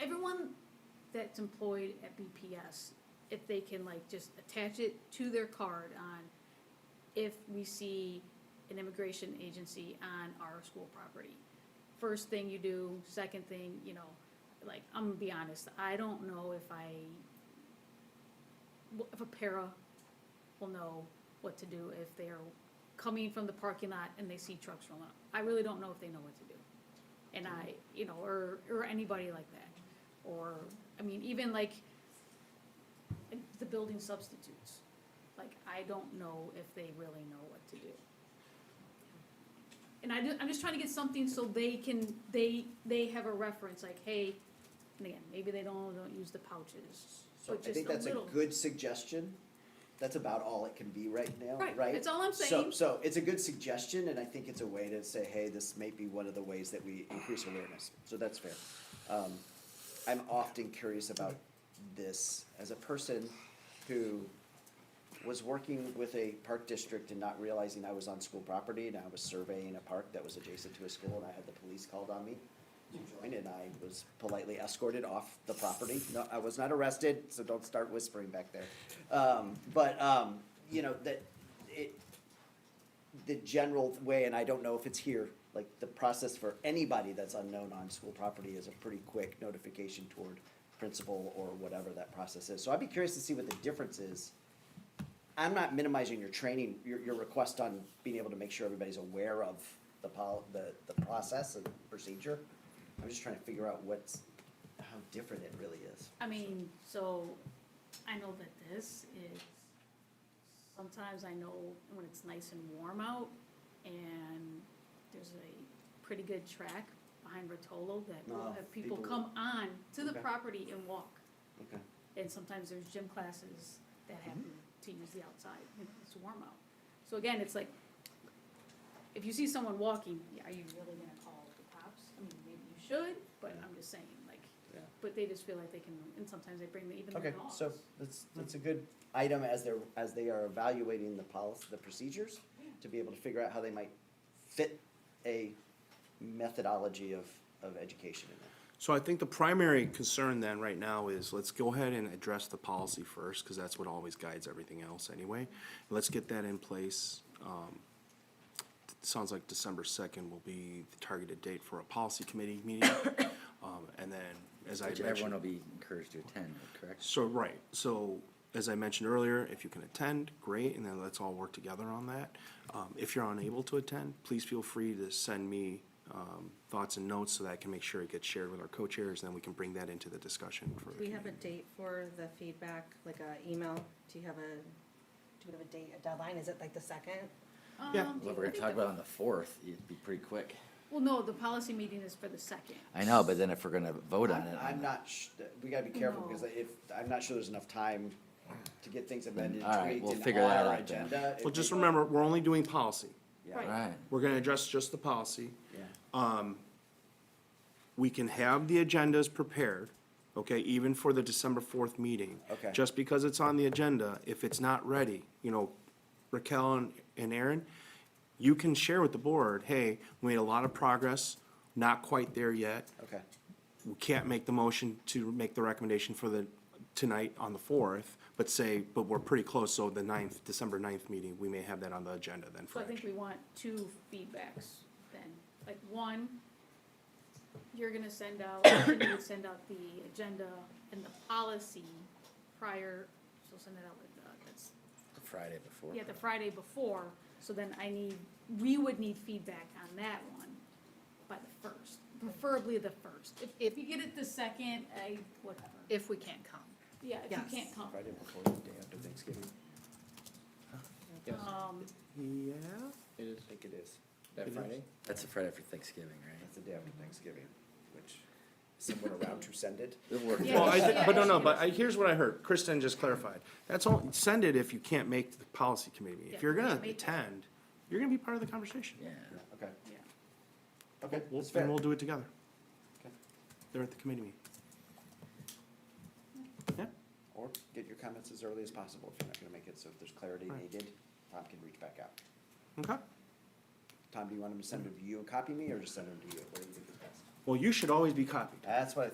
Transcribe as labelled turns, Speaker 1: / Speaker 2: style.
Speaker 1: that's employed at BPS, if they can like just attach it to their card on if we see an immigration agency on our school property. First thing you do, second thing, you know, like, I'm gonna be honest, I don't know if I, if a para will know what to do if they're coming from the parking lot and they see trucks rolling up. I really don't know if they know what to do. And I, you know, or, or anybody like that. Or, I mean, even like the building substitutes. Like, I don't know if they really know what to do. And I, ju- I'm just trying to get something so they can, they, they have a reference, like, hey, and again, maybe they don't, don't use the pouches.
Speaker 2: So
Speaker 1: but
Speaker 2: I think
Speaker 1: just a
Speaker 2: that's a
Speaker 1: little-
Speaker 2: good suggestion. That's about all it can be right now, right?
Speaker 1: Right, that's all I'm
Speaker 2: So,
Speaker 1: saying.
Speaker 2: so it's a good suggestion and I think it's a way to say, hey, this may be one of the ways that we increase awareness. So that's fair. Um, I'm often curious about this as a person who was working with a park district and not realizing I was on school property and I was surveying a park that was adjacent to a school and I had the police called on me. Joined and I was politely escorted off the property. No, I was not arrested, so don't start whispering back there. Um, but, um, you know, that, it, the general way, and I don't know if it's here, like the process for anybody that's unknown on school property is a pretty quick notification toward principal or whatever that process is. So I'd be curious to see what the difference is. I'm not minimizing your training, your, your request on being able to make sure everybody's aware of the pol, the, the process and procedure. I'm just trying to figure out what's, how different it really is.
Speaker 1: I mean, so, I know that this is, sometimes I know when it's nice and warm out, and there's a pretty good track behind Rotolo that will
Speaker 2: No,
Speaker 1: have people
Speaker 2: people-
Speaker 1: come on to the
Speaker 2: Okay.
Speaker 1: property and walk.
Speaker 2: Okay.
Speaker 1: And sometimes there's gym classes that
Speaker 2: Mm-hmm.
Speaker 1: happen to use the outside, you know, it's warm out. So again, it's like, if you see someone walking, are you really gonna call the cops? I mean, maybe you should, but I'm just saying, like,
Speaker 2: Yeah.
Speaker 1: but they just feel like they can, and sometimes they bring the, even their
Speaker 2: Okay,
Speaker 1: dogs.
Speaker 2: so that's, that's a good item as they're, as they are evaluating the policy, the procedures, to be able to figure out how they might fit a methodology of, of education in there.
Speaker 3: So I think the primary concern then right now is let's go ahead and address the policy first, because that's what always guides everything else anyway. Let's get that in place. Um, it Sounds like December second will be the targeted date for a policy committee meeting. Um, And then, as I
Speaker 4: Which
Speaker 3: had
Speaker 4: everyone
Speaker 3: mentioned,
Speaker 4: will be encouraged to attend, correct?
Speaker 3: so, right, so as I mentioned earlier, if you can attend, great, and then let's all work together on that. Um, If you're unable to attend, please feel free to send me um, thoughts and notes so that I can make sure it gets shared with our co-chairs, and then we can bring that into the discussion for. the
Speaker 5: Do we have a
Speaker 3: committee.
Speaker 5: date for the feedback, like a email? Do you have a, do we have a date, a deadline? Is it like the second?
Speaker 3: Yeah.
Speaker 1: Um,
Speaker 4: What we're
Speaker 1: I
Speaker 4: gonna
Speaker 1: think
Speaker 4: talk
Speaker 1: the-
Speaker 4: about on the fourth, it'd be pretty quick.
Speaker 1: Well, no, the policy meeting is for the second.
Speaker 4: I know, but then if we're gonna vote on it.
Speaker 2: I'm I'm not, sh- we gotta be careful, because
Speaker 1: No.
Speaker 2: if, I'm not sure there's enough time to get things amended,
Speaker 4: all right, we'll
Speaker 2: tweaked, and
Speaker 4: figure
Speaker 2: on
Speaker 4: that
Speaker 2: our
Speaker 4: out then.
Speaker 2: agenda.
Speaker 3: Well,
Speaker 2: It
Speaker 3: just
Speaker 2: may-
Speaker 3: remember, we're only doing policy.
Speaker 2: Yeah.
Speaker 1: Right.
Speaker 4: Right,
Speaker 3: We're gonna address just the policy.
Speaker 2: Yeah.
Speaker 3: We can have the agendas prepared, okay, even for the December fourth meeting.
Speaker 2: Okay.
Speaker 3: Just because it's on the agenda, if it's not ready, you know, Raquel and, and Aaron, you can share with the board, hey, we made a lot of progress, not quite there yet.
Speaker 2: Okay,
Speaker 3: we can't make the motion to make the recommendation for the, tonight on the fourth, but say, but we're pretty close, so the ninth, December ninth meeting, we may have that on the agenda then
Speaker 1: So
Speaker 3: for
Speaker 1: I think
Speaker 3: action.
Speaker 1: we want two feedbacks then, like one, you're gonna send out, you would send out the agenda and the policy prior, so send it out like, uh, that's,
Speaker 4: the Friday before.
Speaker 1: yeah, the Friday before, so then I need, we would need feedback on that one by the first, preferably the first. If, if you get it the second, I, whatever,
Speaker 6: if we can't come.
Speaker 1: yeah, if
Speaker 6: Yes.
Speaker 1: you can't come,
Speaker 2: Friday before, the day after Thanksgiving.
Speaker 7: Yes,
Speaker 1: um,
Speaker 3: Yeah,
Speaker 7: it is.
Speaker 2: I think it is.
Speaker 7: That Friday?
Speaker 4: That's the Friday after Thanksgiving,
Speaker 2: That's
Speaker 4: right?
Speaker 2: the day after Thanksgiving, which someone around who sent it.
Speaker 4: It'll work.
Speaker 1: Yeah.
Speaker 3: well, I, thi-
Speaker 1: Yeah,
Speaker 3: but no, no,
Speaker 1: yeah.
Speaker 3: but I, here's what I heard, Kristen just clarified, that's all, send it if you can't make the policy committee,
Speaker 1: Yeah,
Speaker 3: if you're gonna
Speaker 1: can't make it.
Speaker 3: attend, you're gonna be part of the conversation.
Speaker 4: Yeah,
Speaker 2: Okay,
Speaker 1: yeah.
Speaker 2: okay,
Speaker 3: We'll,
Speaker 2: that's fair.
Speaker 3: and we'll do it together.
Speaker 2: Okay.
Speaker 3: They're at the committee meeting. Yeah,
Speaker 2: Or get your comments as early as possible if you're not gonna make it, so if there's clarity
Speaker 3: Right.
Speaker 2: needed, Tom can reach back out.
Speaker 3: okay.
Speaker 2: Tom, do you want him to send them to you and copy me, or just send them to you? What do you think is best?
Speaker 3: Well, you should always be copied.
Speaker 2: That's what I